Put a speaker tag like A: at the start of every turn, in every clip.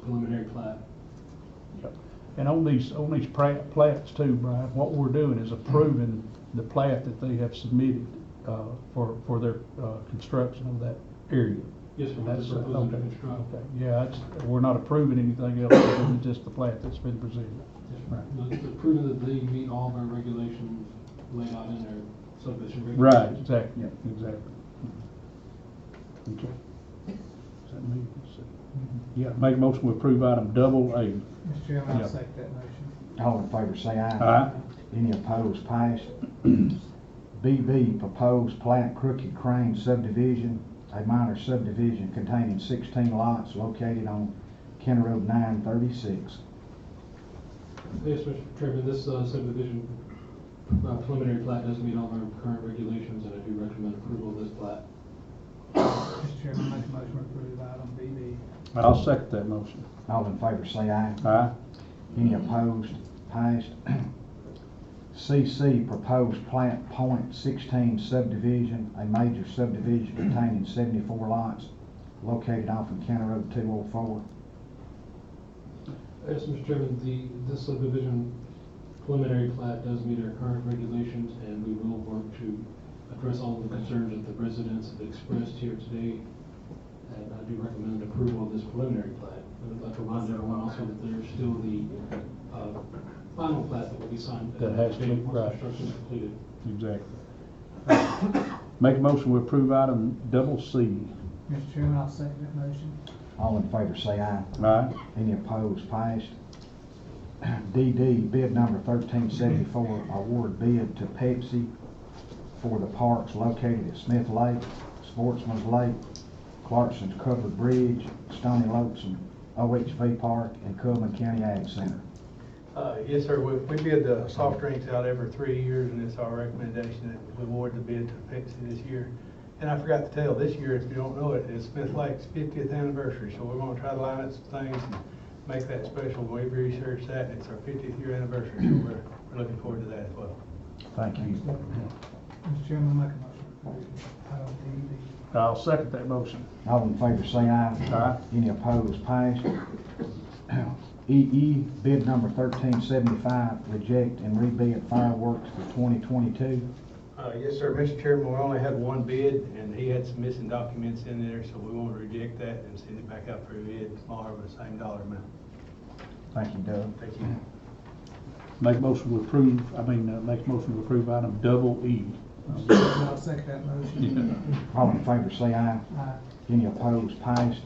A: preliminary plat.
B: And on these, on these pra- plats too, Brian, what we're doing is approving the plat that they have submitted uh, for, for their uh, construction of that area.
A: Yes, sir, we're
B: That's, uh,
A: proposing to
B: okay,
A: construct.
B: okay. Yeah, it's, we're not approving anything else other than just the plat that's been presented.
A: Yes, sir.
B: Right.
A: The- the Proven that they meet all of our regulations laid out in their subdivision
B: Right,
A: regulations.
B: exactly, exactly. Okay. Is that me? Let's see. Yeah, make a motion to approve item double A.
C: Mr. Chairman,
B: Yeah.
C: I'll second that motion.
D: All in favor, say aye.
B: Aye.
D: Any opposed, pass. BB, proposed plat Crooked Crane subdivision, a minor subdivision containing sixteen lots located on County Road nine thirty-six.
A: Yes, Mr. Chairman, this uh, subdivision uh, preliminary plat does meet all of our current regulations, and I do recommend approval of this plat.
C: Mr. Chairman, make a motion to approve item BB.
B: I'll second that motion.
D: All in favor, say aye.
B: Aye.
D: Any opposed, passed. CC, proposed plat Point sixteen subdivision, a major subdivision containing seventy-four lots located off of County Road two oh four.
A: Yes, Mr. Chairman, the, this subdivision preliminary plat does meet our current regulations, and we will work to address all of the concerns that the residents have expressed here today. And I do recommend approval of this preliminary plat. And I'd like to remind everyone also that there's still the, uh, final plat that will be signed. at
B: That has to
A: the date
B: be-
A: once
B: right.
A: Construction is completed.
B: Exactly. Make a motion to approve item double C.
C: Mr. Chairman, I'll second that motion.
D: All in favor, say aye.
B: Aye.
D: Any opposed, passed. DD, bid number thirteen seventy-four, award bid to Pepsi for the parks located at Smith Lake, Sportsman's Lake, Clarkson's Covered Bridge, Stony Lopes and OHV Park, and Coleman County Ag Center.
E: Uh, Yes, sir. We we bid the soft drinks out every three years, and it's our recommendation that we award the bid to Pepsi this year. And I forgot to tell, this year, if you don't know it, it's Smith Lake's fiftieth anniversary, so we're gonna try to line up some things and make that special. We've researched that, and it's our fiftieth year anniversary, so we're we're looking forward to that as well.
D: Thank you.
C: Mr. Chairman, make a motion to approve item
B: I'll second that motion.
D: All in favor, say aye.
B: Aye.
D: Any opposed, passed. EE, bid number thirteen seventy-five, reject and rebid fireworks for twenty twenty-two.
E: Uh, Yes, sir. Mr. Chairman, we only had one bid, and he had some missing documents in there, so we won't reject that and send it back out for a bid tomorrow with the same dollar amount.
D: Thank you, Doug.
E: Thank you.
B: Make a motion to approve, I mean, uh, make a motion to approve item double E.
C: DD. Mr. Chairman, I'll second that motion. Uh,
D: All in favor, say aye.
C: Aye.
D: Any opposed, passed.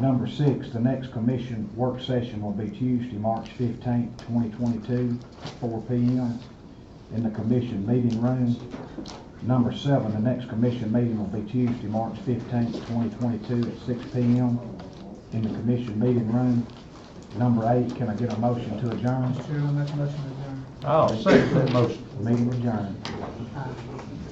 D: Number six, the next commission work session will be Tuesday, March fifteenth, twenty twenty-two, four P M. in the commission meeting room. Number seven, the next commission meeting will be Tuesday, March fifteenth, twenty twenty-two, at six P M. in the commission meeting room. Number eight, can I get a motion to adjourn?
C: Mr. Chairman, make a motion to adjourn.
B: I'll second that motion.
D: Meeting adjourned.